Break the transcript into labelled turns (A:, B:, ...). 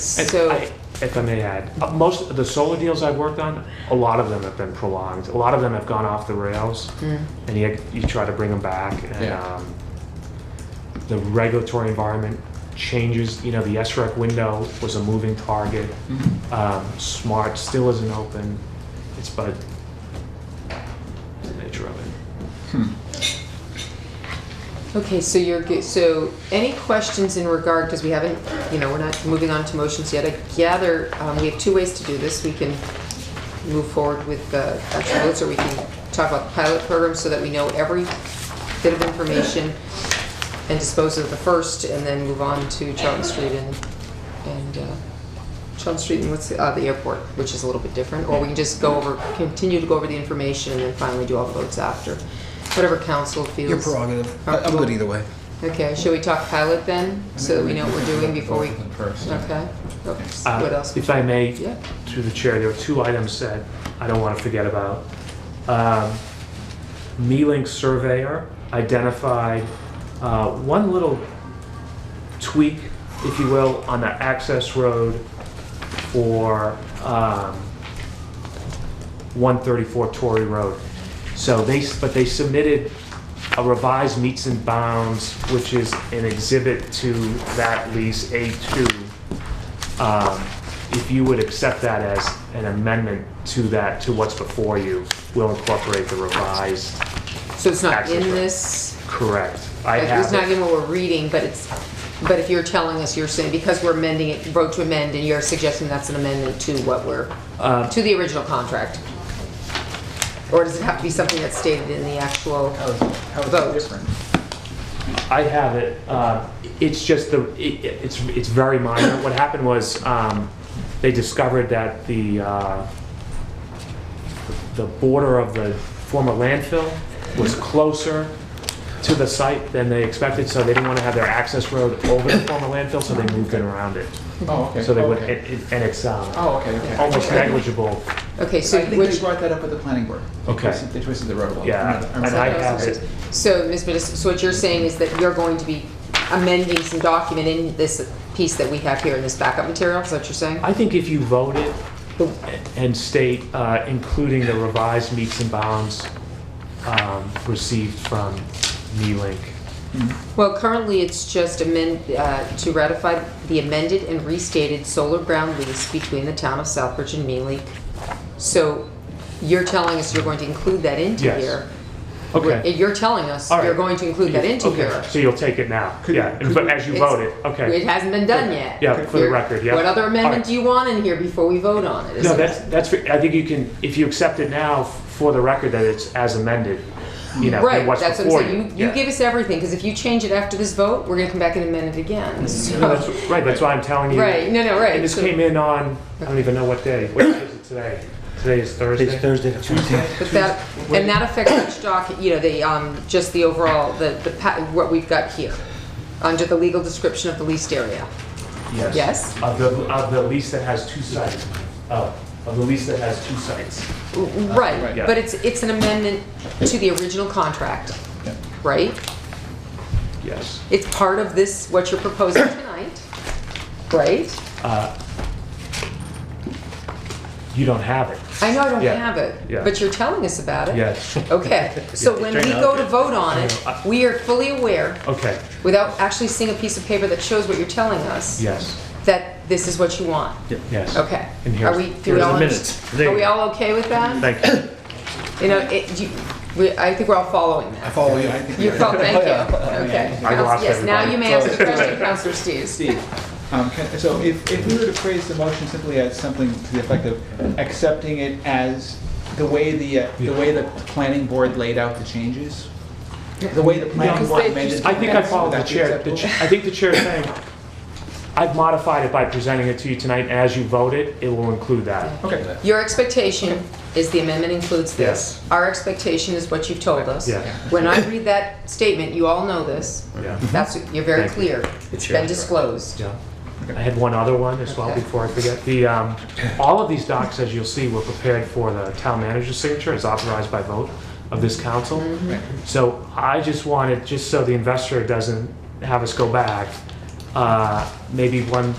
A: If-
B: So,
A: I- If I may add, uh, most of the solar deals I've worked on, a lot of them have been prolonged. A lot of them have gone off the rails,
B: mm,
A: and you, you try to bring them back, and
C: Yeah.
A: um, the regulatory environment changes. You know, the SREC window was a moving target. Um, Smart still isn't open. It's but the nature of it.
B: okay, so you're, ge- so any questions in regard, because we haven't, you know, we're not moving on to motions yet. I gather, um, we have two ways to do this. We can move forward with the actual votes, or we can talk about the pilot program so that we know every bit of information and dispose of the first, and then move on to Charlton Street and, and, uh, Charlton Street and what's, the- uh, the airport, which is a little bit different, or we can just go over, continue to go over the information and then finally do all the votes after. Whatever council feels.
C: Your prerogative. I- I'm good either way.
B: Okay, shall we talk pilot then, so that we know what we're doing before we,
D: Both of them first.
B: okay? Oops,
A: Uh,
B: What else?
A: If I may,
B: Yeah,
A: through the chair, there were two items that I don't want to forget about. Um, Mealing surveyor identified uh, one little tweak, if you will, on the access road for um, 134 Torrey Road. So they, s- but they submitted a revised meets and bounds, which is an exhibit to that lease A2 um, if you would accept that as an amendment to that, to what's before you, we'll incorporate the revised,
B: so it's not in
A: Access road.
B: this,
A: correct. I
B: it's
A: have
B: not
A: it.
B: in what we're reading, but it's, but if you're telling us, you're saying, because we're amending it, vote to amend, and you're suggesting that's an amendment to what we're,
A: Uh,
B: to the original contract? Or does it have to be something that's stated in the actual,
D: How is, how is
B: Vote.
D: it different?
A: I have it, uh, it's just the, it- it's, it's very minor. What happened was, um, they discovered that the, uh, the border of the former landfill was closer to the site than they expected, so they didn't want to have their access road over the former landfill, so they moved it around it.
D: Oh, okay.
A: So they would,
D: okay.
A: it- it- and it's um,
D: Oh, okay, okay.
A: almost
D: Okay.
A: negligible.
B: okay, so
D: I think
B: which,
D: they brought that up with the planning board. They
A: Okay.
D: twisted- They twisted the road a little.
A: Yeah,
D: I'm not- I'm
A: and
D: not-
A: I have it.
B: so, Ms. Modis, so what you're saying is that you're going to be amending some document in this piece that we have here in this backup material, is that what you're saying?
A: I think if you vote it and state, uh, including the revised meets and bounds um, received from Neelink.
B: Well, currently, it's just amend, uh, to ratify the amended and restated solar ground lease between the town of Southbridge and Mealy. So you're telling us you're going to include that into
A: Yes.
B: here?
A: Okay.
B: You're telling us
A: All right.
B: you're going to include that into
A: Okay,
B: here?
A: So you'll take it now,
D: Could-
A: yeah,
D: could
A: but
D: we-
A: as you
B: It's-
A: vote it, okay.
B: It hasn't been done yet.
A: Yeah, for the
B: You're-
A: record, yeah.
B: What other
A: All
B: amendment
A: right.
B: do you want in here before we vote on it? Is
A: No,
B: it-
A: that's, that's, I think you can, if you accept it now for the record that it's as amended, you know,
B: Right,
A: and what's
B: that's what I'm
A: before you.
B: saying, you, you
A: Yeah.
B: give us everything, because if you change it after this vote, we're gonna come back and amend it again,
A: No, Mm-hmm. that's-
B: so.
A: Right, that's why I'm telling you.
B: Right, no, no, right.
A: And this
B: so-
A: came in on, I don't even know what day, what day is it today? Today is Thursday?
E: It's Thursday the 14th.
B: But that, and that affects each doc, you know, the, um, just the overall, the, the, pa- what we've got here, under the legal description of the leased area. Yes?
A: Of the, of the lease that has two sites, oh, of the lease that has two sites.
B: Right,
A: yeah.
B: but it's, it's an amendment to the original contract,
D: Yeah.
B: right?
A: Yes.
B: It's part of this, what you're proposing tonight, right?
A: Uh, You don't have it,
B: I know I don't
A: Yeah,
B: have
A: yeah.
B: it, but you're telling us about it.
A: yes,
B: Okay, so
A: Yeah,
B: when
A: straight
B: we
A: out.
B: go to vote on it,
A: I-
B: we are fully aware,
A: okay,
B: without actually seeing a piece of paper that shows what you're telling us,
A: yes,
B: that this is what you want.
A: yes.
B: Okay.
A: And
B: Are
A: here's-
B: we, do
A: here's
B: we
A: the
B: all,
E: minutes. There
B: are
E: you
B: we
E: go.
B: all okay with that?
A: Thank you.
B: You know, it, you, we, I think we're all following
D: I
B: that.
D: follow you. I think
B: You're
D: follow.
B: following, thank you. Okay.
A: I lost
B: Yes, now
A: everybody.
B: you may ask the question, Counselor Steves.
D: Steve, um, can, so if, if we were to phrase the motion simply as something to the effect of accepting it as the way the, uh, the way the planning board laid out the changes? The way the planning board amended.
A: I think I followed
D: Would
A: the
D: that be
A: chair, the
D: acceptable?
A: ch- I think the chair is saying, I've modified it by presenting it to you tonight, as you vote it, it will include that.
D: Okay.
B: Your expectation is the amendment includes this. Our expectation is what you've told us.
A: Yeah.
B: When I read that statement, you all know this,
A: Yeah.
B: that's, you're very
A: Thank you.
B: clear. It's been disclosed.
A: Yeah. I had one other one as well
B: Okay.
A: before I forget. The, um, all of these docs, as you'll see, were prepared for the town manager's signature, as authorized by vote of this council.
D: Right.
A: So I just wanted, just so the investor doesn't have us go back, uh, maybe one